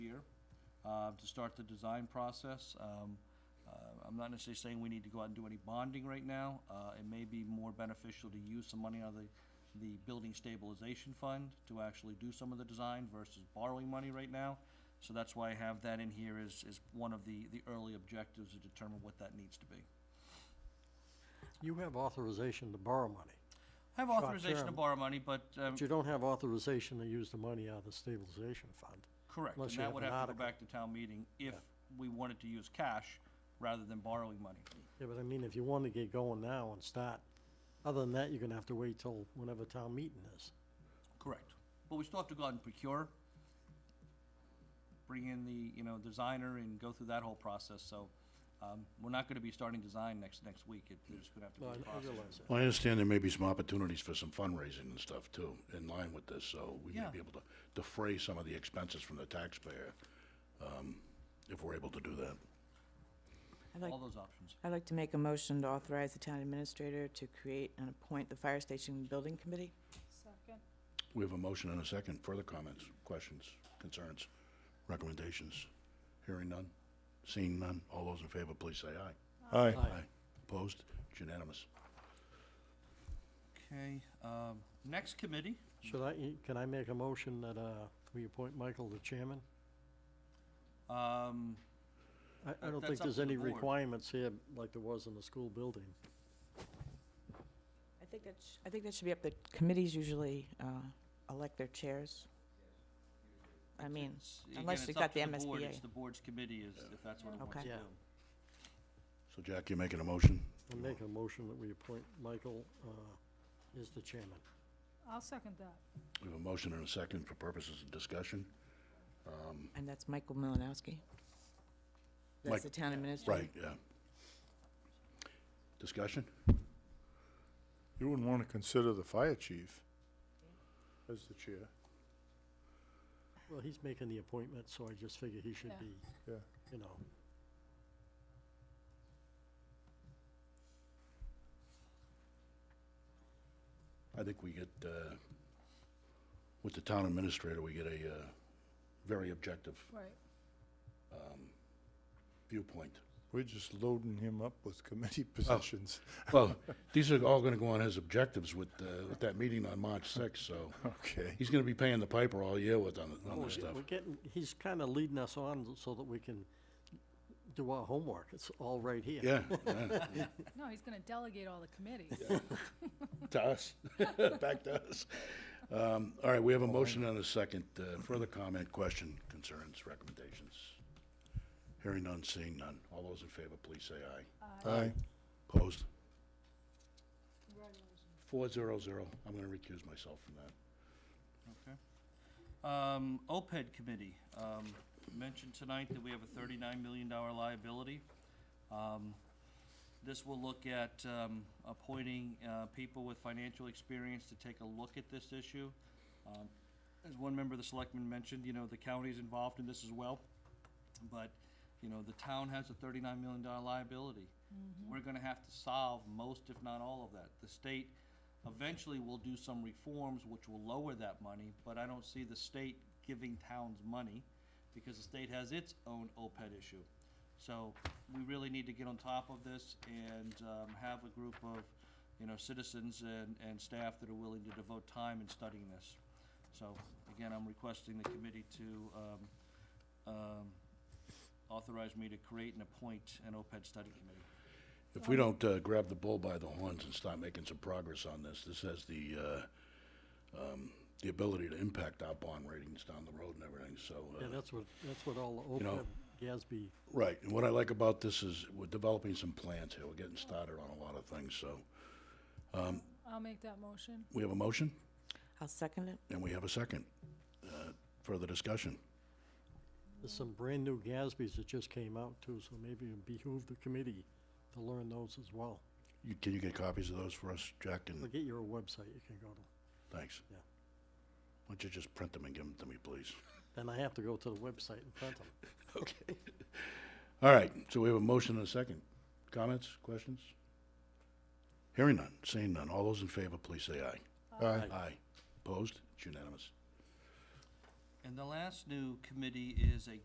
uh, to start the design process. Um, uh, I'm not necessarily saying we need to go out and do any bonding right now. Uh, It may be more beneficial to use some money out of the, the Building Stabilization Fund to actually do some of the design versus borrowing money right now. So that's why I have that in here is, is one of the, the early objectives to determine what that needs to be. You have authorization to borrow money, I have authorization to term. borrow money, but, um, but you don't have authorization to use the money out of the stabilization fund. correct, and unless you that have would an have to go article. back to town meeting if Yeah. we wanted to use cash rather than borrowing money. Yeah, but I mean, if you want to get going now and start, other than that, you're gonna have to wait till whenever town meeting is. Correct. But we still have to go out and procure, bring in the, you know, designer and go through that whole process, so, um, we're not gonna be starting design next, next week, it, there's gonna have to No, I be a I process. realize that. Well, I understand there may be some opportunities for some fundraising and stuff too, in line with this, so we may Yeah. be able to defray some of the expenses from the taxpayer, um, if we're able to do that. I'd like, All those options. I'd like to make a motion to authorize the town administrator to create and appoint the fire station building committee. Second. We have a motion and a second. Further comments, questions, concerns, recommendations? Hearing none? Seeing none? All those in favor, please say aye. Aye. Aye. Opposed? It's unanimous. Okay, um, next committee, Should I, can I make a motion that, uh, we appoint Michael the chairman? um, I, I That- don't that's think up there's to the any board. requirements here like there was in the school building. I think that, sh- I think that should be up, the committees usually uh, elect their chairs. I mean, It's- again, unless it's you've up got to the board. MSBA. It's the board's committee is, if that's what it wants to Okay. do. Yeah. So Jack, you're making a motion? I'm making a motion that we appoint Michael, uh, as the chairman. I'll second that. We have a motion and a second for purposes of discussion. Um, and that's Michael Malinowski. Mike- That's the town administrator. Right, yeah. Discussion? You wouldn't want to consider the fire chief as the chair, Well, he's making the appointment, so I just figure he should Yeah. be, yeah. you know. I think we get, uh, with the town administrator, we get a uh, very objective um, Right. viewpoint. We're just loading him up with committee positions. Well, these are all going to go on his objectives with, uh, with that meeting on March 6th, so Okay. he's going to be paying the piper all year with on, on We're this get- stuff. We're getting, he's kind of leading us on so that we can do our homework. It's all right here. Yeah, yeah. No, he's gonna delegate all the committees. to us, back to us. Um, All right, we have a motion and a second. Uh, Further comment, question, concerns, recommendations? Hearing none, seeing none. All those in favor, please say aye. Aye. Opposed? Congratulations. Four zero zero. I'm going to recuse myself from that. Um, OPED committee, um, mentioned tonight that we have a thirty-nine million dollar liability. Um, This will look at, um, appointing, uh, people with financial experience to take a look at this issue. Um, As one member of the selectmen mentioned, you know, the county's involved in this as well, but, you know, the town has a thirty-nine million dollar liability. We're gonna have to solve most, if not all of that. The state eventually will do some reforms which will lower that money, but I don't see the state giving towns money because the state has its own OPED issue. So we really need to get on top of this and um, have a group of, you know, citizens and, and staff that are willing to devote time in studying this. So again, I'm requesting the committee to um, um, authorize me to create and appoint an OPED study committee. If we don't uh, grab the bull by the horns and start making some progress on this, this has the, uh, um, the ability to impact our bond ratings down the road and everything, so. uh, Yeah, that's what, that's what all You the know- OPEB, GASB, Right, and what I like about this is we're developing some plans here, we're getting started on a lot of things, so. um, I'll make that motion. We have a motion I'll second it. and we have a second. Uh, Further discussion? there's some brand-new GASBs that just came out too, so maybe it behoove the committee to learn those as well. You- Can you get copies of those for us, Jack, Or and get your website you can go to. thanks? Yeah. Why don't you just print them and give them to me, please? Then I have to go to the website and print them. Okay. All right, so we have a motion and a second. Comments, questions? Hearing none, seeing none. All those in favor, please say aye. Aye. Aye. Opposed? It's unanimous. And the last new committee is a